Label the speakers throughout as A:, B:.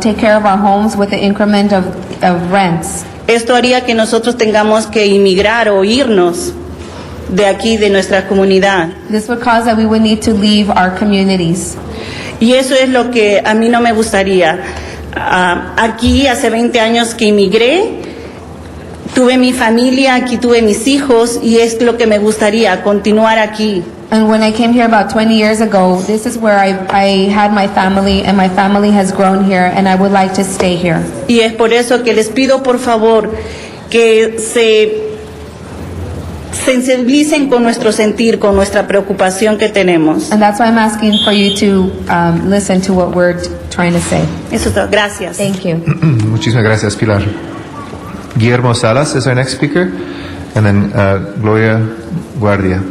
A: take care of our homes with the increment of, of rents.
B: Esto haría que nosotros tengamos que emigrar o irnos de aquí, de nuestra comunidad.
A: This would cause that we would need to leave our communities.
B: Y eso es lo que a mí no me gustaría. Ah, aquí hace 20 años que emigré, tuve mi familia, aquí tuve mis hijos y es lo que me gustaría, continuar aquí.
A: And when I came here about 20 years ago, this is where I, I had my family, and my family has grown here, and I would like to stay here.
B: Y es por eso que les pido por favor que se sensibilicen con nuestro sentir, con nuestra preocupación que tenemos.
A: And that's why I'm asking for you to um, listen to what we're t- trying to say.
B: Eso es todo. Gracias.
A: Thank you.
C: Mm, Muchísimas gracias, Pilar. Guillermo Salas is our next speaker, and then uh, Gloria Guardia.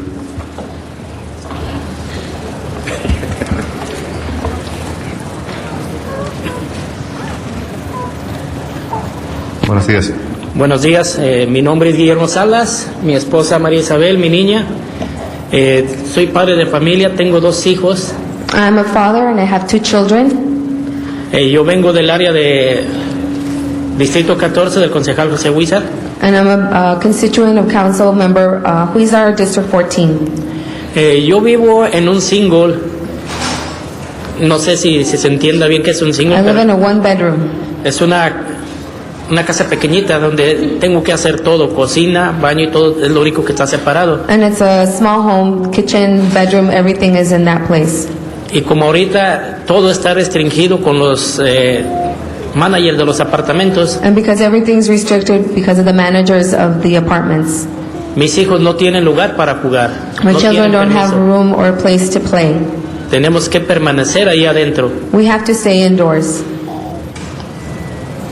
C: Buenos días.
D: Buenos días, eh, mi nombre es Guillermo Salas, mi esposa María Isabel, mi niña. Eh, soy padre de familia, tengo dos hijos.
A: I'm a father, and I have two children.
D: Eh, yo vengo del área de Distrito 14 del concejal José Huizar.
A: And I'm a uh, constituent of council member uh, Huizar, District 14.
D: Eh, yo vivo en un single, no sé si, si se entienda bien que es un single,
A: I live in
D: pero
A: a one-bedroom.
D: es una, una casa pequeñita donde tengo que hacer todo, cocina, baño y todo, es lo único que está separado.
A: And it's a small home, kitchen, bedroom, everything is in that place.
D: Y como ahorita todo está restringido con los eh, managers de los apartamentos,
A: And because everything's restricted because of the managers of the apartments.
D: mis hijos no tienen lugar para jugar.
A: My
D: no
A: children
D: tienen
A: don't have
D: permiso.
A: room or a place to play.
D: Tenemos que permanecer ahí adentro.
A: We have to stay indoors.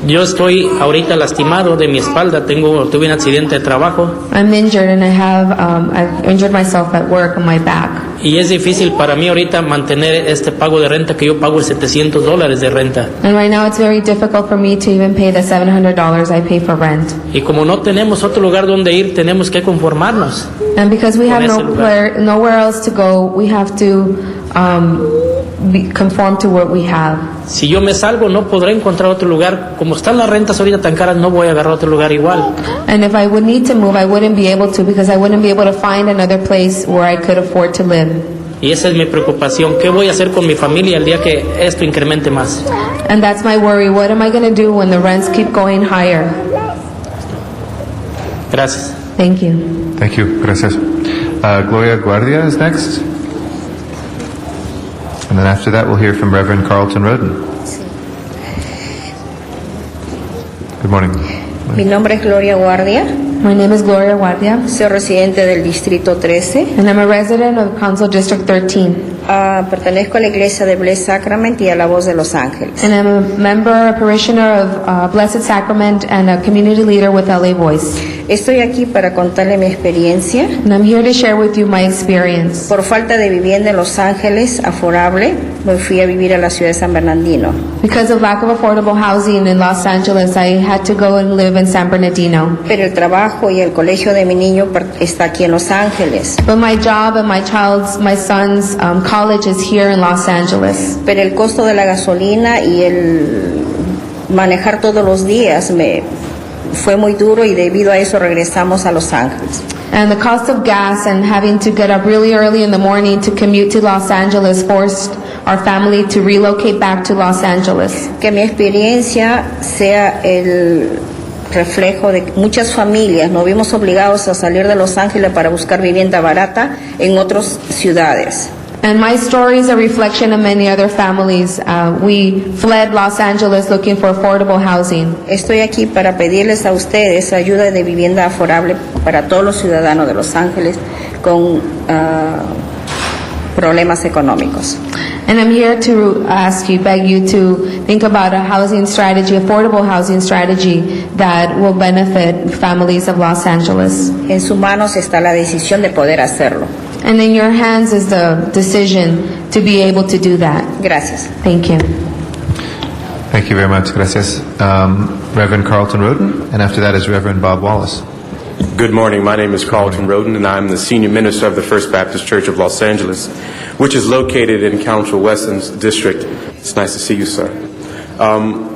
D: Yo estoy ahorita lastimado de mi espalda, tengo, tuve un accidente de trabajo
A: I'm injured and I have, um, I've injured myself at work on my back.
D: y es difícil para mí ahorita mantener este pago de renta que yo pago el 700 dólares de renta.
A: And right now it's very difficult for me to even pay the $700 I pay for rent.
D: Y como no tenemos otro lugar donde ir, tenemos que conformarnos.
A: And because we have
D: Con ese
A: no
D: lugar.
A: player, nowhere else to go, we have to, um, be, conform to what we have.
D: Si yo me salgo no podré encontrar otro lugar. Como están las rentas ahorita tan caras, no voy a agarrar otro lugar igual.
A: And if I would need to move, I wouldn't be able to because I wouldn't be able to find another place where I could afford to live.
D: Y esa es mi preocupación. ¿Qué voy a hacer con mi familia el día que esto incremente más?
A: And that's my worry. What am I going to do when the rents keep going higher?
D: Gracias.
A: Thank you.
C: Thank you. Gracias. Uh, Gloria Guardia is next. And then after that, we'll hear from Reverend Carlton Roden. Good morning.
E: Mi nombre es Gloria Guardia,
A: My name is Gloria Guardia,
E: soy residente del Distrito 13.
A: and I'm a resident of Council District 13.
E: Ah, pertenezco a la iglesia de Blessed Sacrament y a la Voz de Los Ángeles.
A: And I'm a member, a parishioner of uh, Blessed Sacrament, and a community leader with LA Voice.
E: Estoy aquí para contarle mi experiencia.
A: And I'm here to share with you my experience.
E: Por falta de vivienda en Los Ángeles, aforable, me fui a vivir a la ciudad de San Bernardino.
A: Because of lack of affordable housing in Los Angeles, I had to go and live in San Bernardino.
E: Pero el trabajo y el colegio de mi niño per- está aquí en Los Ángeles.
A: But my job and my child's, my son's um, college is here in Los Angeles.
E: Pero el costo de la gasolina y el manejar todos los días me fue muy duro y debido a eso regresamos a Los Ángeles.
A: And the cost of gas and having to get up really early in the morning to commute to Los Angeles forced our family to relocate back to Los Angeles.
E: que mi experiencia sea el reflejo de que muchas familias. Nos vimos obligados a salir de Los Ángeles para buscar vivienda barata en otras ciudades.
A: And my story is a reflection of many other families. Uh, we fled Los Angeles looking for affordable housing.
E: Estoy aquí para pedirles a ustedes ayuda de vivienda aforable para todos los ciudadanos de Los Ángeles con ah, problemas económicos.
A: And I'm here to ask you, beg you to think about a housing strategy, affordable housing strategy that will benefit families of Los Angeles.
E: En sus manos está la decisión de poder hacerlo.
A: And in your hands is the decision to be able to do that.
E: Gracias.
A: Thank you.
C: Thank you very much. Gracias. Um, Reverend Carlton Roden, and after that is Reverend Bob Wallace.
F: Good morning. My name is Carlton Roden, and I'm the senior minister of the First Baptist Church of Los Angeles, which is located in Council Weston's district. It's nice to see you, sir. Uh, Um,